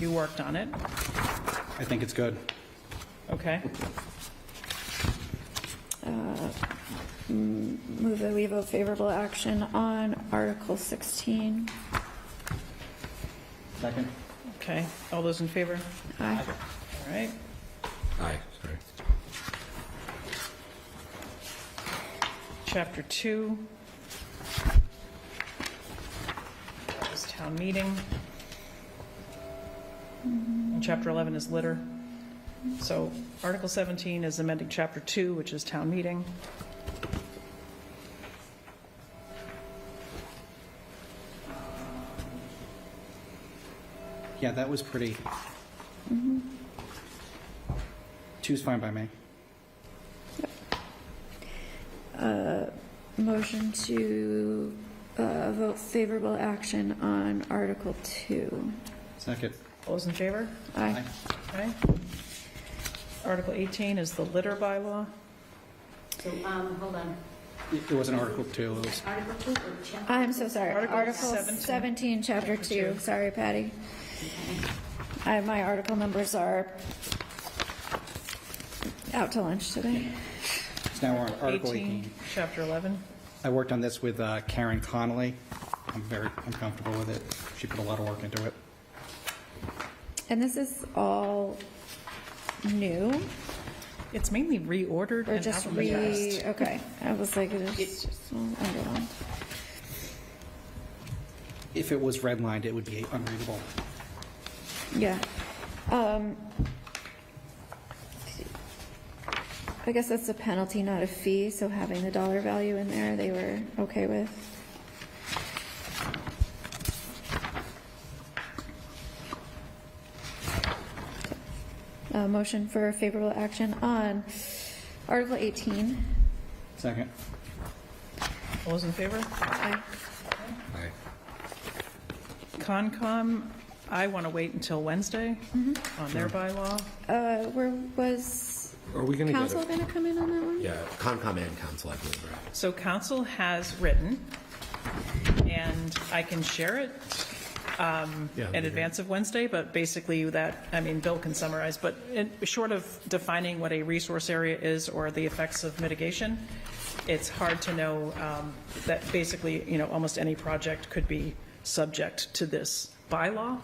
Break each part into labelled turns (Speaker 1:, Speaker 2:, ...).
Speaker 1: You worked on it,
Speaker 2: I think it's good.
Speaker 1: okay?
Speaker 3: Move that we vote favorable action on Article 16.
Speaker 2: Second?
Speaker 1: Okay, all those in favor?
Speaker 3: Aye.
Speaker 1: All right,
Speaker 4: Aye, sorry.
Speaker 1: chapter two. That was town meeting. And chapter 11 is litter. So Article 17 is amending chapter two, which is town meeting.
Speaker 2: Yeah, that was pretty. Two's fine by me.
Speaker 3: Motion to uh, vote favorable action on Article 2.
Speaker 2: Second.
Speaker 1: All those in favor?
Speaker 3: Aye.
Speaker 2: Aye.
Speaker 1: Okay. Article 18 is the litter bylaw.
Speaker 5: So, um, hold on,
Speaker 2: It it wasn't Article 2, it was,
Speaker 5: Article two or chapter?
Speaker 3: I'm so sorry.
Speaker 1: Article
Speaker 3: Article
Speaker 1: 17.
Speaker 3: 17, Chapter 2.
Speaker 1: two.
Speaker 3: Sorry, Patty. I- My article numbers are out to lunch today.
Speaker 2: it's now on Article 18.
Speaker 1: Chapter 11.
Speaker 2: I worked on this with uh, Karen Connolly. I'm very, I'm comfortable with it. She put a lot of work into it.
Speaker 3: And this is all new,
Speaker 1: It's mainly reordered
Speaker 3: or
Speaker 1: and
Speaker 3: just re,
Speaker 1: alphabetized.
Speaker 3: okay. I was like, it's just, underlined.
Speaker 2: If it was redlined, it would be unreadable.
Speaker 3: Yeah. Um, I guess that's a penalty, not a fee, so having the dollar value in there, they were okay with. Uh, motion for favorable action on Article 18.
Speaker 2: Second.
Speaker 1: All those in favor?
Speaker 3: Aye.
Speaker 4: Aye.
Speaker 1: Concom, I want to wait until Wednesday on their bylaw.
Speaker 3: Uh, where was
Speaker 4: Are we gonna get
Speaker 3: council
Speaker 4: it?
Speaker 3: going to come in on that one?
Speaker 4: Yeah, Concom and Council, I believe, right?
Speaker 1: So council has written, and I can share it
Speaker 4: Yeah, that'd
Speaker 1: in
Speaker 4: be great.
Speaker 1: advance of Wednesday, but basically that, I mean, Bill can summarize, but in- short of defining what a resource area is or the effects of mitigation, it's hard to know um, that basically, you know, almost any project could be subject to this bylaw.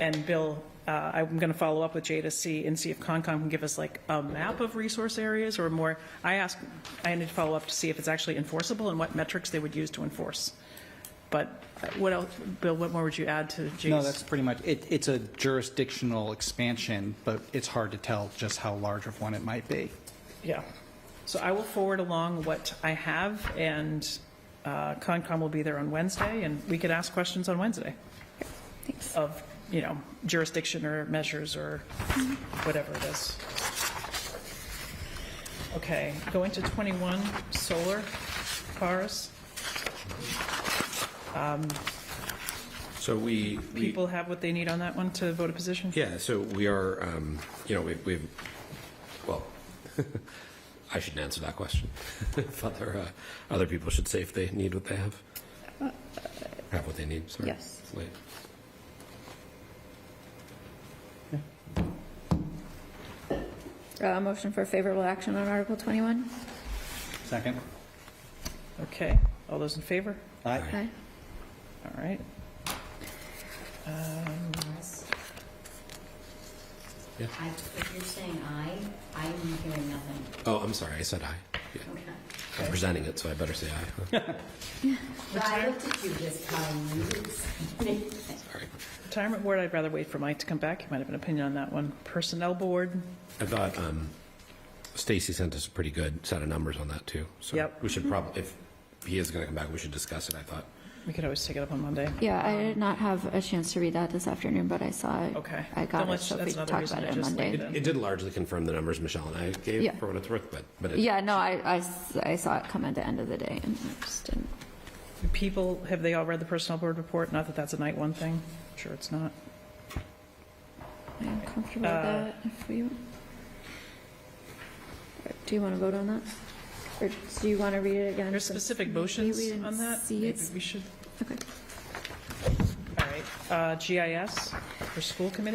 Speaker 1: And Bill, uh, I'm going to follow up with Jay to see, and see if Concom can give us like a map of resource areas or more. I asked, I need to follow up to see if it's actually enforceable and what metrics they would use to enforce. But what else, Bill, what more would you add to Jay's?
Speaker 2: No, that's pretty much, it, it's a jurisdictional expansion, but it's hard to tell just how large of one it might be.
Speaker 1: Yeah. So I will forward along what I have, and uh, Concom will be there on Wednesday, and we could ask questions on Wednesday
Speaker 3: Thanks.
Speaker 1: of, you know, jurisdiction or measures or whatever it is. Okay, going to 21, solar cars.
Speaker 4: So we, we,
Speaker 1: People have what they need on that one to vote a position?
Speaker 4: yeah, so we are, um, you know, we- we've, well, I shouldn't answer that question. If Other, uh, other people should say if they need what they have. Have what they need, sorry.
Speaker 3: Uh, yes.
Speaker 4: Wait.
Speaker 3: Uh, motion for favorable action on Article 21.
Speaker 2: Second.
Speaker 1: Okay, all those in favor?
Speaker 2: Aye.
Speaker 3: Aye.
Speaker 1: All right.
Speaker 5: I, if you're saying aye, I'm hearing nothing.
Speaker 4: Oh, I'm sorry, I said aye. Yeah,
Speaker 5: Okay.
Speaker 4: I'm presenting it, so I better say aye. huh?
Speaker 5: But I looked at you this time.
Speaker 4: Sorry.
Speaker 1: Retirement Board, I'd rather wait for Mike to come back. He might have an opinion on that one. Personnel Board,
Speaker 4: I thought um, Stacy sent us a pretty good set of numbers on that too. So
Speaker 1: Yep.
Speaker 4: we should probably, if he is going to come back, we should discuss it. I thought.
Speaker 1: we could always take it up on Monday.
Speaker 3: Yeah, I did not have a chance to read that this afternoon, but I saw it.
Speaker 1: Okay.
Speaker 3: I got
Speaker 1: Then
Speaker 3: it,
Speaker 1: let's-
Speaker 3: so if
Speaker 1: that's
Speaker 3: we can
Speaker 1: another
Speaker 3: talk
Speaker 1: reason to
Speaker 3: about it on
Speaker 1: just leave
Speaker 3: Monday.
Speaker 1: it.
Speaker 4: It did largely confirm the numbers Michelle and I gave
Speaker 3: Yeah.
Speaker 4: for what it's worth, but but it,
Speaker 3: Yeah, no, I, I s- I saw it come at the end of the day and I just didn't.
Speaker 1: People, have they all read the Personnel Board report? Not that that's a night one thing. Sure, it's not.
Speaker 3: I'm comfortable with
Speaker 1: Uh,
Speaker 3: that if we. Do you want to vote on that? Or do you want to read it again?
Speaker 1: There's
Speaker 3: since
Speaker 1: specific
Speaker 3: maybe we
Speaker 1: motions
Speaker 3: didn't
Speaker 1: on that?
Speaker 3: see
Speaker 1: Maybe
Speaker 3: it?
Speaker 1: we should,
Speaker 3: Okay.
Speaker 1: all right. Uh, GIS for school committee?